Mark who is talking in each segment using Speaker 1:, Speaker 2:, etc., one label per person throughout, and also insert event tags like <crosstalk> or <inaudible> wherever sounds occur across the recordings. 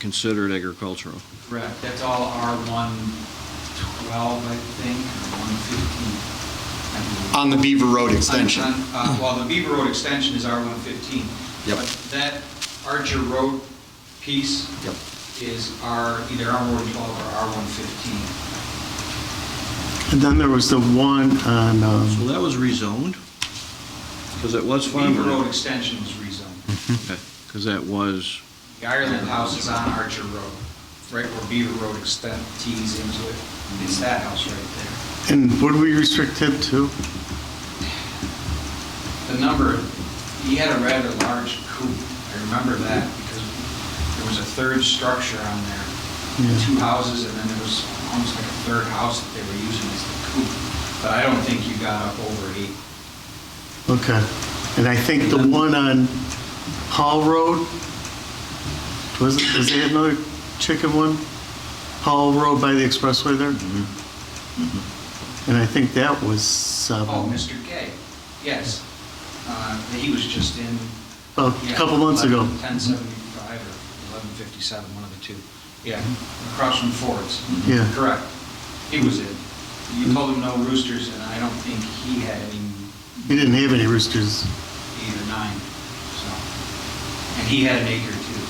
Speaker 1: considered agricultural.
Speaker 2: Correct, that's all R one twelve, I think, or one fifteen.
Speaker 3: on the Beaver Road extension.
Speaker 2: uh, Well, the Beaver Road extension is R one fifteen.
Speaker 3: Yep.
Speaker 2: But that Archer Road piece
Speaker 3: Yep.
Speaker 2: is R, either R one twelve or R one fifteen.
Speaker 4: And then there was the one on,
Speaker 1: So
Speaker 4: um,
Speaker 1: that was rezoned? Because it was
Speaker 2: Beaver Road
Speaker 1: farmland.
Speaker 2: extension was rezoned.
Speaker 1: Because that was,
Speaker 2: The Ireland House is on Archer Road, right where Beaver Road extend, tees into it. It's that house right there.
Speaker 4: and would we restrict it to?
Speaker 2: the number, he had a rather large coop, I remember that, because there was a third structure on there,
Speaker 4: Yeah.
Speaker 2: two houses, and then there was almost like a third house that they were using as the coop, but I don't think you got up over eight.
Speaker 4: Okay. And I think the one on Hall Road, was, it- was that another chicken one? Hall Road by the expressway there? And I think that was um,
Speaker 2: Oh,
Speaker 4: seven,
Speaker 2: Mr. Gay, yes, Uh, he was just in.
Speaker 4: a
Speaker 2: yeah,
Speaker 4: couple months ago.
Speaker 2: 1075 or 1157, one of the two, yeah, across from Ford's.
Speaker 4: Mm-hmm. Yeah.
Speaker 2: Correct, he was in. You told him no roosters, and I don't think he had any
Speaker 4: He didn't have any roosters.
Speaker 2: eight or nine, so. And he had an acre too.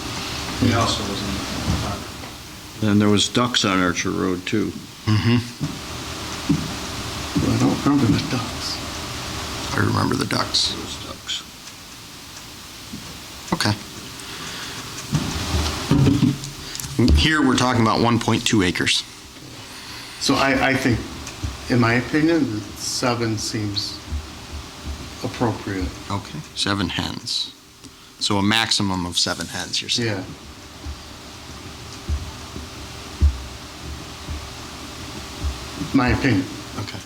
Speaker 2: He also was in the park.
Speaker 1: and there was ducks on Archer Road too.
Speaker 4: I don't remember the ducks.
Speaker 3: I remember the ducks.
Speaker 1: There was ducks.
Speaker 3: Okay. Here, we're talking about 1.2 acres.
Speaker 4: So I, I think, in my opinion, seven seems appropriate.
Speaker 3: Okay. Seven hens. So a maximum of seven hens, you're saying?
Speaker 4: Yeah. My opinion.
Speaker 3: Okay.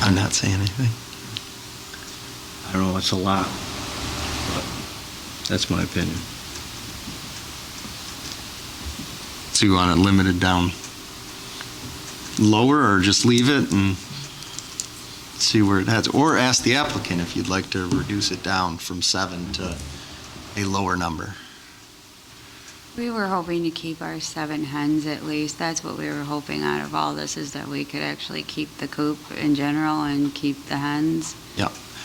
Speaker 3: I'm not saying anything.
Speaker 1: I don't know, it's a lot. but That's my opinion.
Speaker 3: So you want to limit it down lower or just leave it and see where it heads? Or ask the applicant if you'd like to reduce it down from seven to a lower number.
Speaker 5: We were hoping to keep our seven hens at least. That's what we were hoping out of all this, is that we could actually keep the coop in general and keep the hens.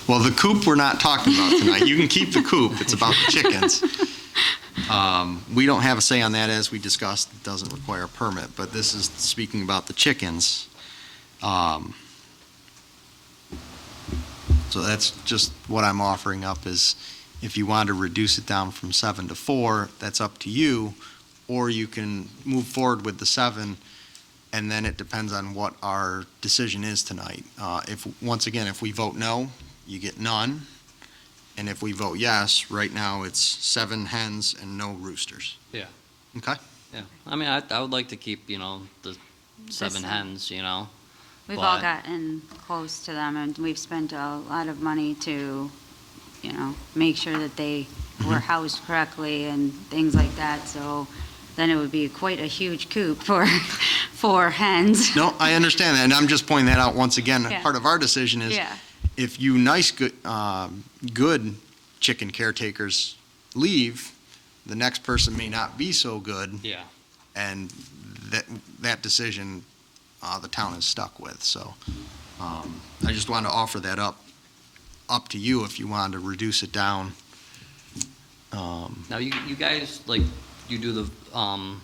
Speaker 3: Well, the coop we're not talking about tonight. You can keep the coop. It's about the chickens. Um, We don't have a say on that, as we discussed, it doesn't require a permit, but this is speaking about the chickens. Um, So that's just what I'm offering up is if you want to reduce it down from seven to four, that's up to you. Or you can move forward with the seven, and then it depends on what our decision is tonight. Uh, If, once again, if we vote no, you get none. And if we vote yes, right now it's seven hens and no roosters.
Speaker 6: Yeah.
Speaker 3: Okay?
Speaker 6: Yeah, I mean, I, I would like to keep, you know, the seven
Speaker 5: Just-
Speaker 6: hens, you know.
Speaker 5: We've all
Speaker 6: But-
Speaker 5: gotten close to them, and we've spent a lot of money to, you know, make sure that they were housed correctly and things like that, so then it would be quite a huge coop for, <laughs> for hens.
Speaker 3: No, I understand that, and I'm just pointing that out once again.
Speaker 5: Yeah.
Speaker 3: Part of our decision is
Speaker 5: Yeah,
Speaker 3: if you nice, good, um, good chicken caretakers leave, the next person may not be so good,
Speaker 6: Yeah.
Speaker 3: and that, that decision, uh, the town is stuck with, so. um, I just wanted to offer that up, up to you if you wanted to reduce it down. Um,
Speaker 6: Now you, you guys like you do the um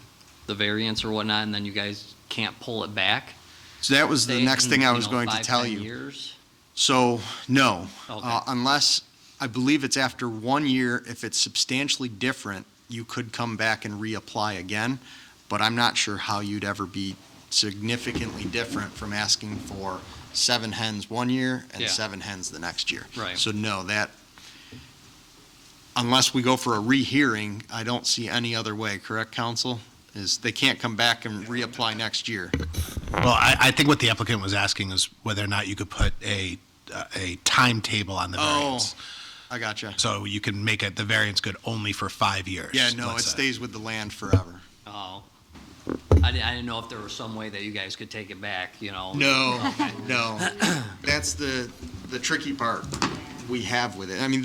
Speaker 6: the variance or whatnot, and then you guys can't pull it back.
Speaker 3: So that was the
Speaker 6: Say
Speaker 3: next
Speaker 6: in,
Speaker 3: thing I
Speaker 6: you
Speaker 3: was
Speaker 6: know,
Speaker 3: going to
Speaker 6: five,
Speaker 3: tell
Speaker 6: 10
Speaker 3: you.
Speaker 6: Years.
Speaker 3: So, no,
Speaker 6: Okay.
Speaker 3: Uh, unless, I believe it's after one year, if it's substantially different, you could come back and reapply again, but I'm not sure how you'd ever be significantly different from asking for seven hens one year and
Speaker 6: Yeah.
Speaker 3: seven hens the next year.
Speaker 6: Right.
Speaker 3: So no, that, unless we go for a rehearing, I don't see any other way, correct, counsel? Is they can't come back and reapply next year.
Speaker 7: Well, I, I think what the applicant was asking is whether or not you could put a, uh, a timetable on the
Speaker 3: Oh.
Speaker 7: variance.
Speaker 3: I gotcha.
Speaker 7: So you can make it, the variance good only for five years.
Speaker 3: Yeah, no, it
Speaker 7: let's say.
Speaker 3: stays with the land forever.
Speaker 6: Oh, I didn't, I didn't know if there was some way that you guys could take it back. You know.
Speaker 3: No, no. That's the, the tricky part. we have with it. I mean,